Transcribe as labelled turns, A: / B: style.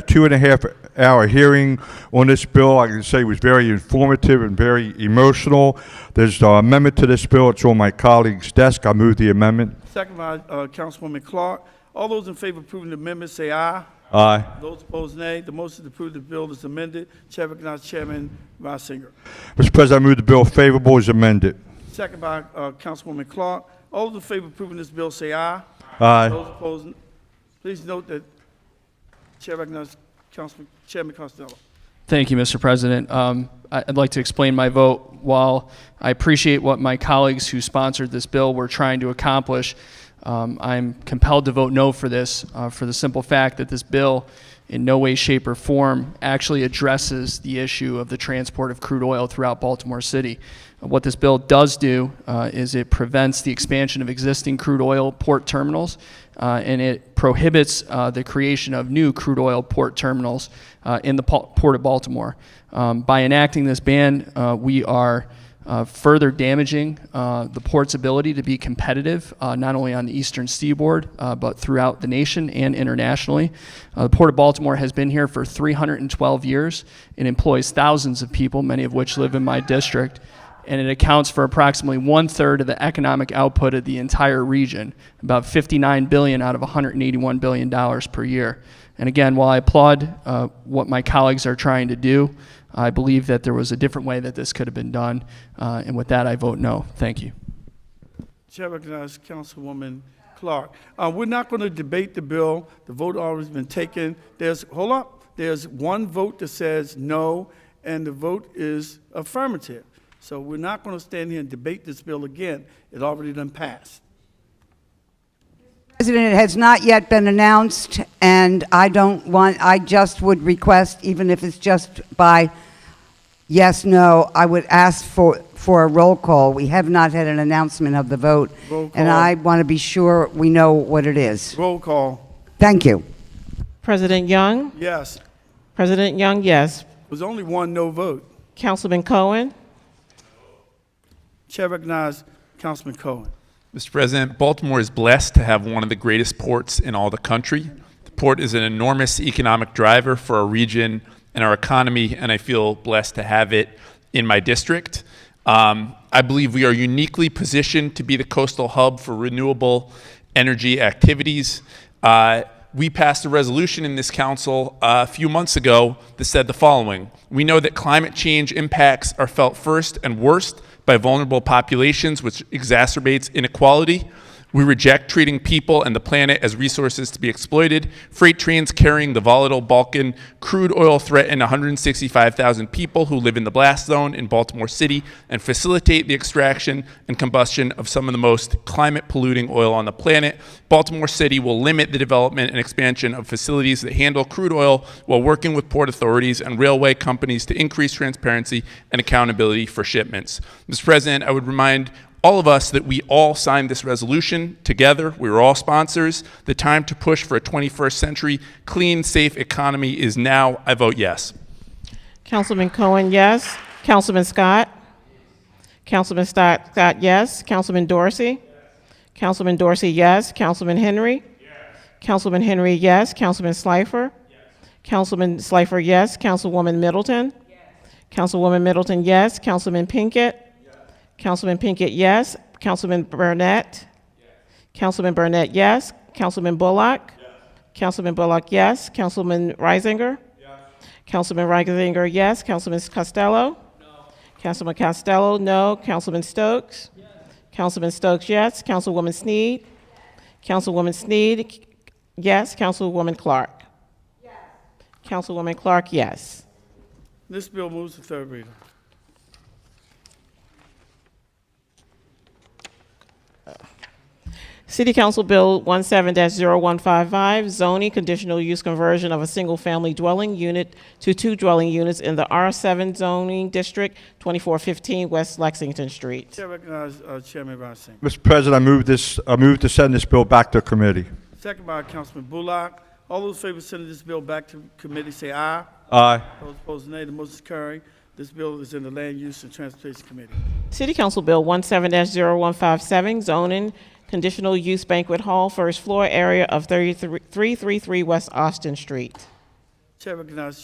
A: two and a half hour hearing on this bill. I can say it was very informative and very emotional. There's an amendment to this bill. It's on my colleague's desk. I move the amendment.
B: Second by uh, Councilwoman Clark. All those in favor of approving the amendment, say aye.
A: Aye.
B: Those opposed, nay. The motion to approve the bill is amended. Chair recognizes Chairman Reisinger.
A: Mr. President, I move the bill favorable as amended.
B: Second by uh, Councilwoman Clark. All those in favor of approving this bill, say aye.
A: Aye.
B: Those opposed, n- please note that Chair recognizes Councilman, Chairman Costello.
C: Thank you, Mr. President. Um, I- I'd like to explain my vote. While I appreciate what my colleagues who sponsored this bill were trying to accomplish, um, I'm compelled to vote no for this, uh, for the simple fact that this bill, in no way, shape, or form, actually addresses the issue of the transport of crude oil throughout Baltimore City. What this bill does do uh, is it prevents the expansion of existing crude oil port terminals, uh, and it prohibits uh, the creation of new crude oil port terminals uh, in the Pal- Port of Baltimore. Um, by enacting this ban, uh, we are uh, further damaging uh, the port's ability to be competitive, uh, not only on the eastern seaboard, uh, but throughout the nation and internationally. Uh, the Port of Baltimore has been here for 312 years and employs thousands of people, many of which live in my district and it accounts for approximately one third of the economic output of the entire region, about 59 billion out of 181 billion dollars per year. And again, while I applaud uh, what my colleagues are trying to do, I believe that there was a different way that this could have been done. Uh, and with that, I vote no. Thank you.
B: Chair recognizes Councilwoman Clark. Uh, We're not going to debate the bill. The vote already has been taken. There's, hold up, there's one vote that says no, and the vote is affirmative. So we're not going to stand here and debate this bill again. It already done passed.
D: President, it has not yet been announced, and I don't want, I just would request, even if it's just by yes, no, I would ask for, for a roll call. We have not had an announcement of the vote.
B: Roll call.
D: And I want to be sure we know what it is.
B: Roll call,
D: Thank you.
E: President Young,
B: yes.
E: President Young, yes.
B: There's only one no vote.
E: Councilman Cohen,
B: Chair recognizes Councilman Cohen.
F: Mr. President, Baltimore is blessed to have one of the greatest ports in all the country. The port is an enormous economic driver for our region and our economy, and I feel blessed to have it in my district. Um, I believe we are uniquely positioned to be the coastal hub for renewable energy activities. Uh, we passed a resolution in this council uh, a few months ago that said the following We know that climate change impacts are felt first and worst by vulnerable populations, which exacerbates inequality. We reject treating people and the planet as resources to be exploited. Freight trains carrying the volatile Balkan crude oil threaten 165,000 people who live in the blast zone in Baltimore City and facilitate the extraction and combustion of some of the most climate polluting oil on the planet. Baltimore City will limit the development and expansion of facilities that handle crude oil while working with port authorities and railway companies to increase transparency and accountability for shipments. Mr. President, I would remind all of us that we all signed this resolution together. We were all sponsors. The time to push for a 21st century clean, safe economy is now. I vote yes.
E: Councilman Cohen, yes. Councilman Scott, Councilman Scott, Scott, yes. Councilman Dorsey, Councilman Dorsey, yes. Councilman Henry, Councilman Henry, yes. Councilman Slifer, Councilman Slifer, yes. Councilwoman Middleton, Councilwoman Middleton, yes. Councilman Pinkett, Councilman Pinkett, yes. Councilman Burnett, Councilman Burnett, yes. Councilman Bullock, Councilman Bullock, yes. Councilman Reisinger, Councilman Reisinger, yes. Councilman Costello? No. Councilman Costello, no. Councilman Stokes? Yes. Councilman Stokes, yes. Councilwoman Sneed? Councilwoman Sneed, yes. Councilwoman Clark? Yes. Councilwoman Clark, yes.
B: This bill moves to third reader.
E: City Council Bill 17-0155, zoning conditional use conversion of a single-family dwelling unit to two dwelling units in the R7 zoning district, 2415 West Lexington Street.
B: Chair recognizes uh, Chairman Reisinger.
A: Mr. President, I move this, I move to send this bill back to committee.
B: Second by Councilman Bullock. All those in favor of sending this bill back to committee, say aye.
A: Aye.
B: Those opposed, nay. The motion is carried. This bill is in the Land Use and Transportation Committee.
E: City Council Bill 17-0157, zoning conditional use banquet hall, first floor area of 33 333 West Austin Street.
B: Chair recognizes